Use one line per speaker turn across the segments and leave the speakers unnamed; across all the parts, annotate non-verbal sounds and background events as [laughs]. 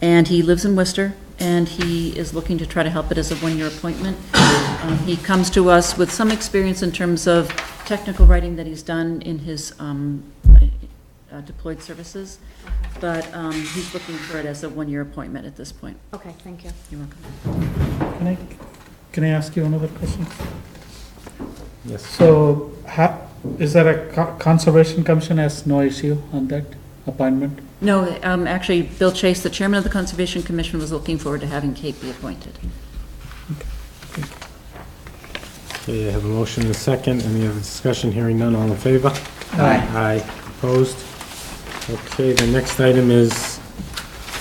and he lives in Worcester, and he is looking to try to help it as a one-year appointment. Um, He comes to us with some experience in terms of technical writing that he's done in his um, uh, deployed services, but um, he's looking for it as a one-year appointment at this point.
Okay, thank you.
You're welcome.
Can I, can I ask you another question?
Yes.
So, ha, is there a co- conservation commission has no issue on that appointment?
No, um, actually, Bill Chase, the chairman of the Conservation Commission, was looking forward to having Kate be appointed.
Okay, I have a motion and a second. Any other discussion? Hearing none, all in favor? Aye. Opposed? Okay, the next item is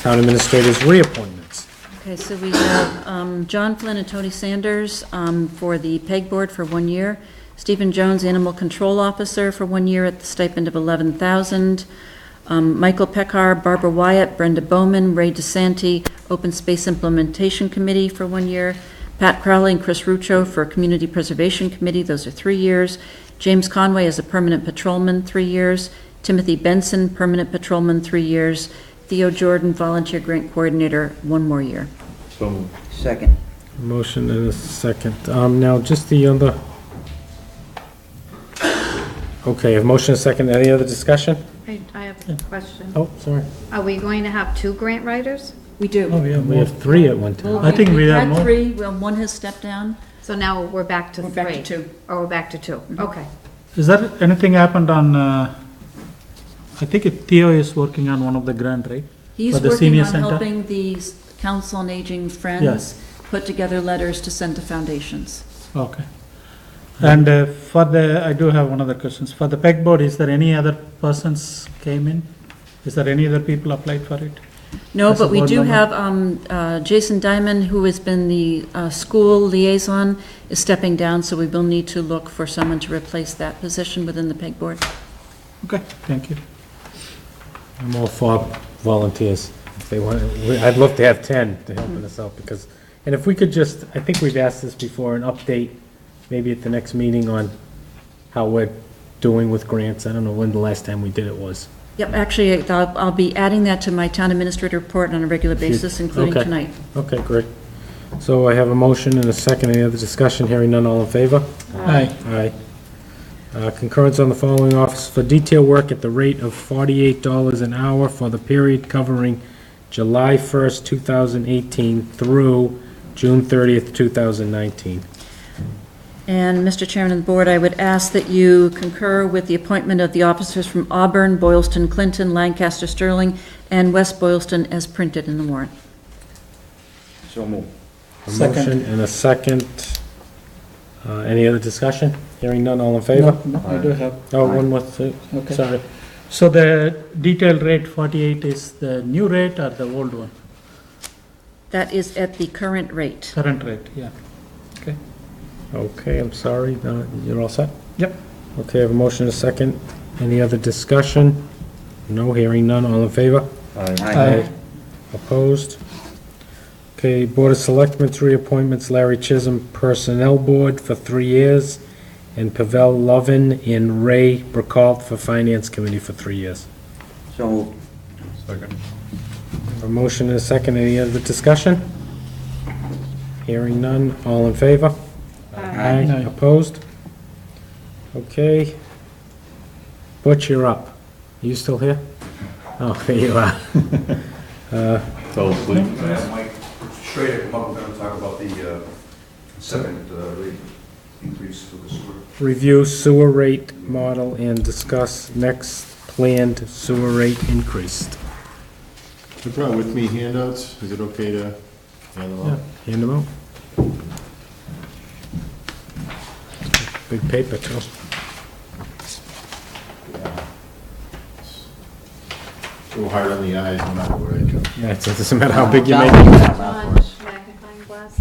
town administrators reappointments.
Okay, so we have um, John Flynn and Tony Sanders um, for the PEG Board for one year, Stephen Jones, Animal Control Officer, for one year at the stipend of $11,000, um, Michael Pekar, Barbara Wyatt, Brenda Bowman, Ray DeSanti, Open Space Implementation Committee for one year, Pat Crowley and Chris Ruccio for Community Preservation Committee, those are three years, James Conway is a permanent patrolman, three years, Timothy Benson, permanent patrolman, three years, Theo Jordan, volunteer grant coordinator, one more year.
So moved.
Second.
Motion and a second. Um, now, just the other. Okay, I have motion and a second. Any other discussion?
I, I have a question.
Oh, sorry.
Are we going to have two grant writers?
We do.
Oh, yeah,
We
more.
have three at one time.
I think we have
had
more.
three, well, one has stepped down.
So now we're back to
We're
three?
back to two. Mm-hmm.
Oh, we're back to two, okay.
Is there anything happened on, uh, I think it- Theo is working on one of the grant, right?
He's
For the
working
senior
on
center?
helping the s- Council on Aging Friends
Yes.
put together letters to send to foundations.
Okay. And uh, for the, I do have one other questions. For the PEG board, is there any other persons came in? Is there any other people applied for it?
No,
That's a
but we
board
do
member.
have um, uh, Jason Diamond, who has been the uh, school liaison, is stepping down, so we will need to look for someone to replace that position within the PEG Board.
Okay, thank you.
I'm all for volunteers. If they want, we- I'd love to have 10 to helping us out because, and if we could just, I think we've asked this before, an update maybe at the next meeting on how we're doing with grants. I don't know when the last time we did it was.
Yep, actually, I'll I'll be adding that to my town administrator report on a regular basis, including
Okay.
tonight.
Okay, great. So I have a motion and a second. Any other discussion? Hearing none, all in favor?
Aye.
Aye. Uh, Concurrence on the following office for detail work at the rate of $48 an hour for the period covering July 1st, 2018 through June 30th, 2019.
And, Mr. Chairman of the Board, I would ask that you concur with the appointment of the officers from Auburn, Boylston, Clinton, Lancaster, Sterling, and West Boylston as printed in the warrant.
So moved.
A
Second.
motion and a second. Uh, Any other discussion? Hearing none, all in favor?
No, no, I do have,
Oh, one more thing,
okay.
sorry.
So the detailed rate 48 is the new rate or the old one?
That is at the current rate.
Current rate, yeah.
Okay, I'm sorry. Uh, You're all set?
Yep.
Okay, I have a motion and a second. Any other discussion? No, hearing none, all in favor?
Aye.
Aye.
Opposed? Okay, Board of Selectmen's reappointments, Larry Chisholm, Personnel Board for three years, and Pavel Lovin and Ray Burkalt for Finance Committee for three years.
So moved.
Second.
A motion and a second, any other discussion? Hearing none, all in favor?
Aye.
Opposed? Okay. Butch, you're up. You still here? Oh, [laughs] there you are.
So please.
Yeah, Mike Schrader, come up, we're gonna talk about the uh, second uh, rate increase for the sewer.
Review sewer rate model and discuss next planned sewer rate increase.
I brought with me handouts, is it okay to hand them out?
Hand them out. Big paper, too.
A little hard on the eyes, no matter what I do.
Yeah, it [laughs] doesn't matter how big you
Down
make it.
with that mouth for us.
Magnifying glass?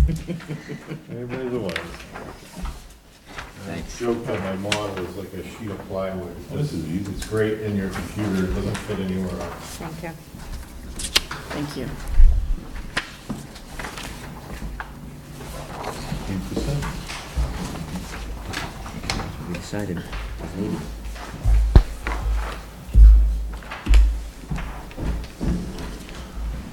Everybody's aware.
Thanks.
Joke that my model is like a sheet of plywood. This is easy. It's great in your computer, it doesn't fit anywhere else.
Thank you.
Thank you.
Eight percent.
We decided, we need it.